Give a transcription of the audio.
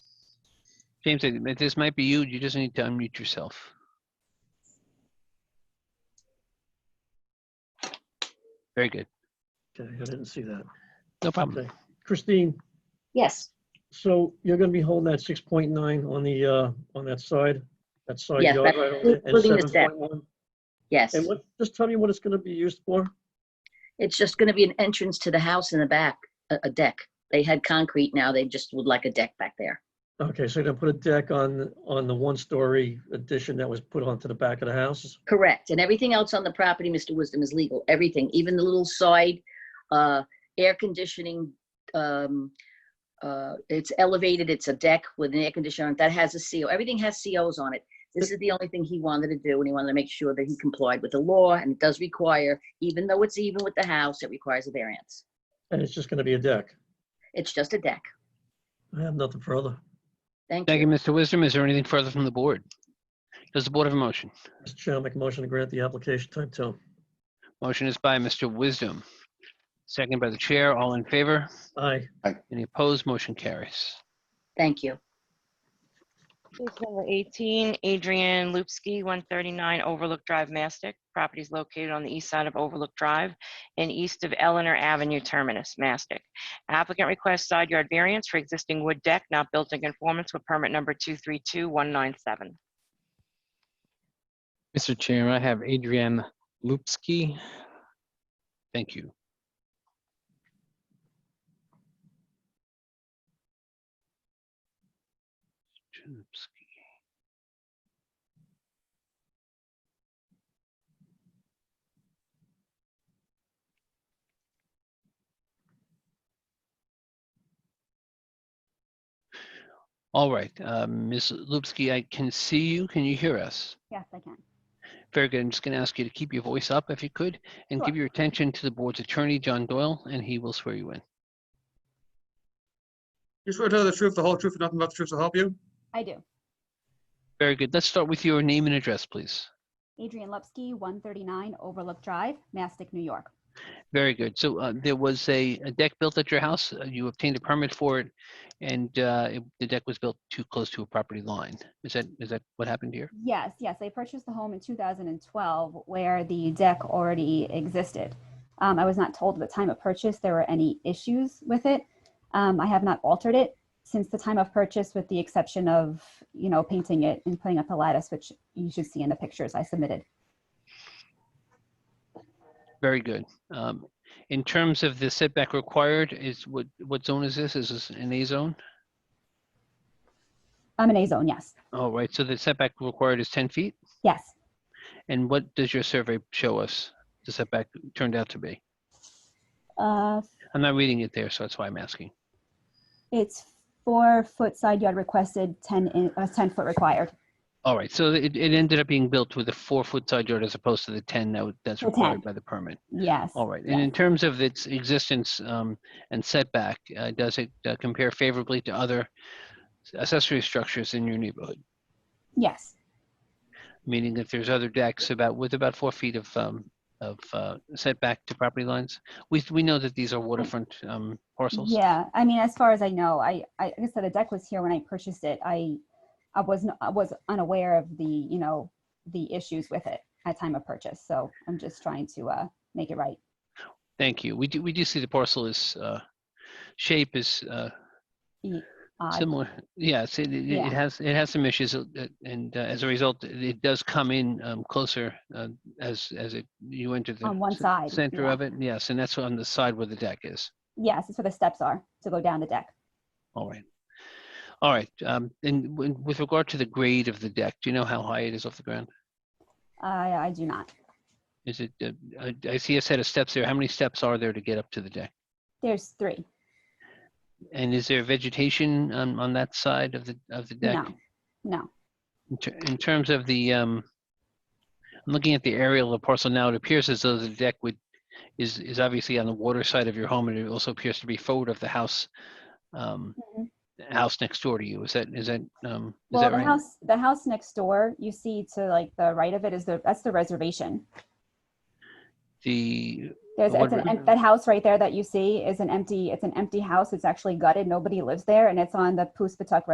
James, I think this might be you. You just need to unmute yourself. Very good. Okay, I didn't see that. No problem. Okay. Christine, Yes, so you're gonna be holding that six point nine on the, uh, on that side, that side Yes, yard that- right over there, and including the seven step. point one? yes. And what, just tell me what it's gonna be used for? It's just going to be an entrance to the house in the back, a, a deck. They had concrete, now they just would like a deck back there. Okay, so you're gonna put a deck on, on the one-story addition that was put onto the back of the house? Correct. And everything else on the property, Mr. Wisdom, is legal. Everything, even the little side, uh, air conditioning, um, uh, it's elevated, it's a deck with an air conditioner on it. That has a CO. Everything has COs on it. This is the only thing he wanted to do and he wanted to make sure that he complied with the law and it does require, even though it's even with the house, it requires a variance. And it's just gonna be a deck? It's just a deck. I have nothing further. Thank you. Thank you, Mr. Wisdom. Is there anything further from the board? Does the board have a motion? Mr. Chair, I'll make a motion to grant the application type two. Motion is by Mr. Wisdom. Second by the chair. All in favor? Aye. Any opposed? Motion carries. Thank you. Case number 18, Adrian Lupsky, 139 Overlook Drive, Mastic. Property is located on the east side of Overlook Drive and east of Eleanor Avenue Terminus, Mastic. Applicant requests side yard variance for existing wood deck not built in conformance with permit number 232197. Mr. Chair, I have Adrian Lupsky. Thank you. Chudovsky. All right, uh, Ms. Lupsky, I can see you. Can you hear us? Yes, I can. Very good. I'm just going to ask you to keep your voice up if you could and Sure. give your attention to the board's attorney, John Doyle, and he will swear you in. You swear to tell the truth, the whole truth, and nothing but the truth to help you? I do. Very good. Let's start with your name and address, please. Adrian Lepsky, 139 Overlook Drive, Mastic, New York. Very good. So uh, there was a, a deck built at your house. uh, You obtained a permit for it, and uh, it, the deck was built too close to a property line. Is that is that what happened here? Yes, yes, I purchased the home in 2012 where the deck already existed. Um, I was not told at the time of purchase there were any issues with it. Um, I have not altered it since the time of purchase with the exception of, you know, painting it and putting up the lattice, which you should see in the pictures I submitted. Very good. Um, in terms of the setback required, is what what zone is this? Is this an A zone? I'm an A zone, yes. All right. So the setback required is 10 feet. Yes. And what does your survey show us? The setback turned out to be. Uh, I'm not reading it there, so that's why I'm asking. it's four foot side yard requested, 10, in, uh, 10 foot required. All right, so it, it ended up being built with a four-foot side yard as opposed to the 10 that, would- that's The 10. required by the permit. Yes. All right, and in terms of its existence um, and setback, uh, does it uh, compare favorably to other accessory structures in your neighborhood? Yes. Meaning that there's other decks about, with about four feet of, um, of uh, setback to property lines? We, we know that these are waterfront um, parcels. Yeah, I mean, as far as I know, I, I like I said the deck was here when I purchased it. I, I was not, I was unaware of the, you know, the issues with it at time of purchase. So I'm just trying to uh, make it right. Thank you. We do, we do see the parcel is, uh, shape is uh, Uh, Similar, yes, it, it- Yeah. it has, it has some issues, uh, uh, and uh, as a result, it it does come in um, closer uh, as, as it, you enter the. On one c- side, Center yeah. of it, yes, and that's on the side where the deck is, yes, that's where the steps are to go down the deck. all right. All right, um, and w- with regard to the grade of the deck, do you know how high it is off the ground? I, I do not. Is it, uh, I I see a set of steps there, how many steps are there to get up to the deck? There's three. And is there vegetation on, on that side of the, of the deck? No, no. In ter- In terms of the, um, I'm looking at the aerial of the parcel now, it appears as though the deck would, is, is obviously on the water side of your home, and it also appears to be forward of the house, um, Mhm. house next door to you. Is that, is that, um, is Well, that the right? house, the house next door, you see to like the right of it is the that's the reservation. The, There's, What it's an, re- em- that house right there that you see is an empty, it's an empty house. It's actually gutted. Nobody lives there. And it's on the Puspatuck